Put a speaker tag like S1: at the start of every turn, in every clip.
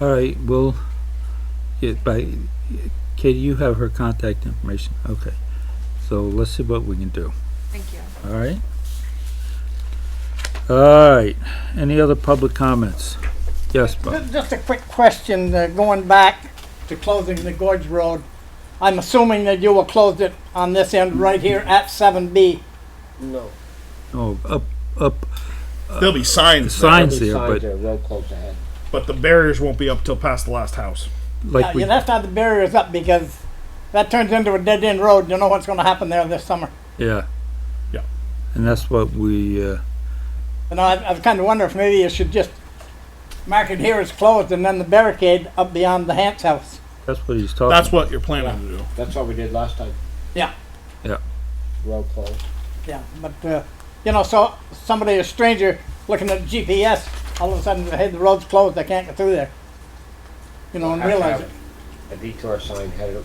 S1: All right, well, yeah, by, Katie, you have her contact information, okay. So let's see what we can do,
S2: Thank you.
S1: all right? All right, any other public comments? Yes, Bob?
S3: Ju- Just a quick question, uh, going back to closing the Gorge Road. I'm assuming that you will close it on this end right here at 7B.
S4: No.
S1: Oh, up, up,
S5: There'll be signs, signs,
S1: signs there, but
S4: Road closed ahead.
S5: but the barriers won't be up till past the last house.
S3: Uh, Yeah,
S1: like we,
S3: You left out the barriers up because that turns into a dead-end road. You know what's going to happen there this summer.
S1: yeah.
S5: Yeah.
S1: And that's what we, uh,
S3: And I, I was kind of wondering if maybe you should just mark it here as closed and then the barricade up beyond the Hance house.
S1: that's what he's talking.
S5: That's what you're planning to do.
S4: That's what we did last time.
S3: Yeah.
S1: Yeah.
S4: Road closed.
S3: Yeah, but, uh, you know, so somebody, a stranger, looking at GPS, all of a sudden, hey, the road's closed, I can't get through there. You know, and
S4: Have to
S3: realize
S4: have
S3: it.
S4: A detour sign headed, up,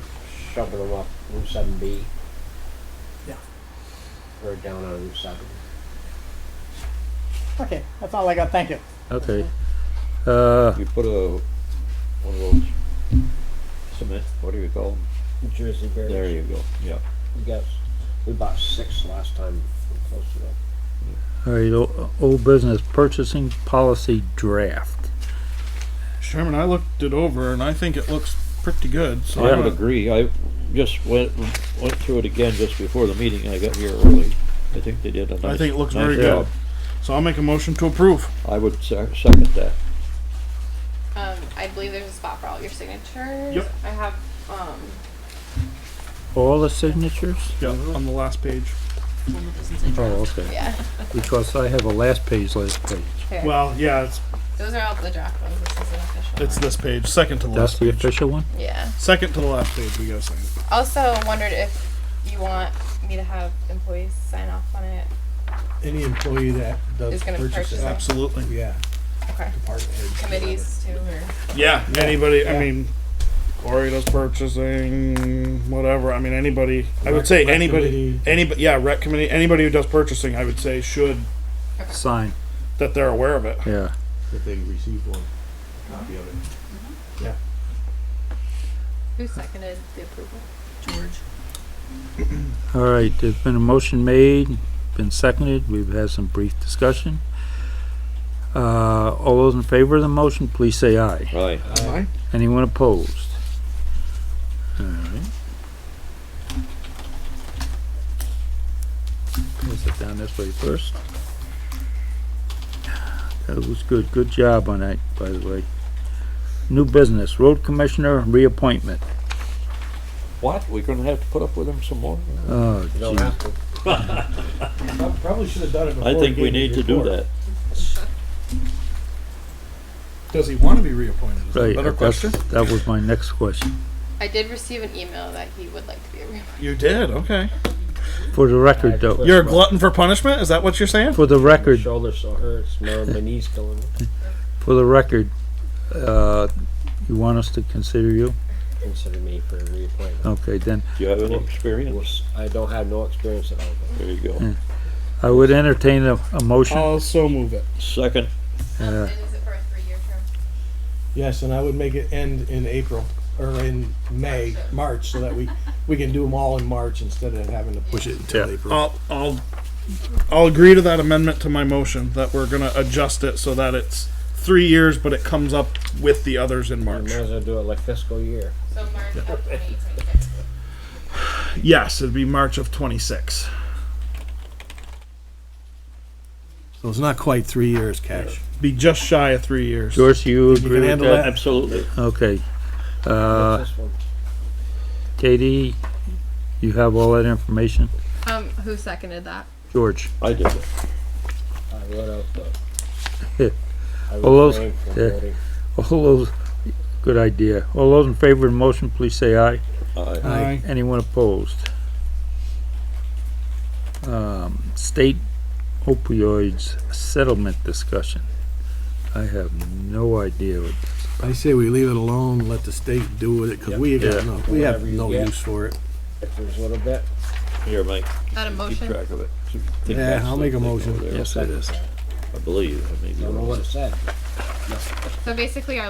S4: shoving them off Route seven B.
S3: Yeah.
S4: Or down on Route seven.
S3: Okay, that's all I got, thank you.
S1: Okay. Uh,
S6: You put a, one of those cement, what do you call them?
S4: Jersey
S6: There
S4: barriers,
S6: you go, yeah.
S4: yes. We bought six last time, we closed it up.
S1: all right, o- old business purchasing policy draft.
S5: Sherman, I looked it over and I think it looks pretty good. So
S6: I
S5: I'm
S6: would
S5: gonna-
S6: agree, I just went, went through it again just before the meeting, I got here early. I think they did a nice.
S5: I think it looks
S6: nice
S5: very
S6: job.
S5: good. So I'll make a motion to approve.
S6: I would se- second that.
S2: Um, I believe there's a spot for all your signatures.
S5: Yep.
S2: I have, um,
S1: All the signatures?
S5: Yeah, on the last page.
S1: Oh, okay.
S2: yeah,
S1: Because I have a last page, last page.
S2: here.
S5: Well, yeah, it's
S2: Those are all the draft ones. This is an official
S5: it's
S2: one.
S5: this page, second to the
S1: That's
S5: last
S1: the
S5: page.
S1: official one?
S2: Yeah.
S5: Second to the last page. We gotta sign it.
S2: Also wondered if you want me to have employees sign off on it.
S7: Any employee that does
S2: Is gonna
S7: purchase
S2: purchase
S7: it,
S2: it.
S5: Absolutely.
S7: yeah,
S2: Okay.
S7: department heads.
S2: Committees too, or?
S5: Yeah. Anybody? I
S7: Yeah.
S5: mean, Corey does purchasing, whatever. I mean, anybody. I would say
S7: Rec- rec
S5: anybody.
S7: committee.
S5: Anybody. Yeah, rec committee. Anybody who does purchasing, I would say should
S1: Sign,
S5: that they're aware of it.
S1: yeah.
S7: If they receive one, copy of it.
S2: Who seconded the approval?
S1: All right, there's been a motion made, been seconded, we've had some brief discussion. Uh, all those in favor of the motion, please say aye.
S6: Right.
S5: Aye.
S1: Anyone opposed? All right. We'll sit down this way first. That was good, good job on that, by the way. New business, road commissioner reappointment.
S6: What, we're gonna have to put up with them some more?
S1: Oh,
S4: You don't
S1: gee.
S4: have to,
S7: Prob- Probably should have done it before.
S6: I
S7: he
S6: think we
S7: gave his
S6: need to do
S7: report.
S6: that.
S7: Does he want to be reappointed? Is that a
S1: Right, uh,
S7: Better
S1: that's-
S7: question.
S1: That was my next question.
S2: I did receive an email that he would like to be a reappointed.
S5: You did. Okay.
S1: For the record though,
S5: You're a glutton for punishment? Is that what you're saying?
S1: for the
S4: my
S1: record,
S4: shoulder still hurts, my, my knee's killing me,
S1: for the record, uh, you want us to consider you?
S4: consider me for a reappointment.
S1: Okay, then,
S6: Do you have any experience?
S4: Was- I don't have no experience at all, but
S6: There you
S1: Yeah.
S6: go.
S1: I would entertain a, a motion.
S5: I'll so move it.
S6: Second,
S1: Yeah.
S2: Um, and is it for a three-year term?
S7: Yes, and I would make it end in April, or in May, March, so that we, we can do them all in March instead of having to push it until
S1: Yeah.
S7: April.
S5: I'll I'll I'll agree to that amendment to my motion that we're gonna adjust it so that it's three years, but it comes up with the others in
S4: I
S5: March.
S4: might as well do it like fiscal year.
S2: So March of 2026.
S5: Yes, it'd be March of twenty six.
S7: So it's not quite three years, Cash.
S5: Be just shy of three years.
S1: George, you
S7: You
S1: agree
S7: can
S1: with
S7: handle
S1: that?
S7: that?
S6: absolutely.
S1: Okay. Uh,
S4: What's this one?
S1: Katie, you have all that information?
S2: Um, who seconded that?
S1: George,
S6: I did it.
S4: I wrote out
S1: Yeah.
S4: the. I
S1: All those-
S4: refrained from
S1: yeah.
S4: voting.
S1: all those, good idea. All those in favor of the motion, please say aye.
S6: Aye.
S5: Aye.
S1: Anyone opposed? Um, state opioids settlement discussion. I have no idea what
S7: I say we leave it alone, let the state do with it, because we
S1: Yeah.
S7: got no, we have
S4: Whatever you
S7: no
S4: get.
S7: use for it.
S4: If there's a little bit,
S6: Here, Mike,
S2: That a
S6: keep
S2: motion?
S6: track of it. Think
S7: Yeah,
S6: that's
S7: I'll
S6: the
S7: make a
S6: thing
S7: motion.
S6: over there,
S7: it is.
S6: I believe, I may be
S4: I don't know
S6: wrong.
S4: what it said.
S2: So basically, our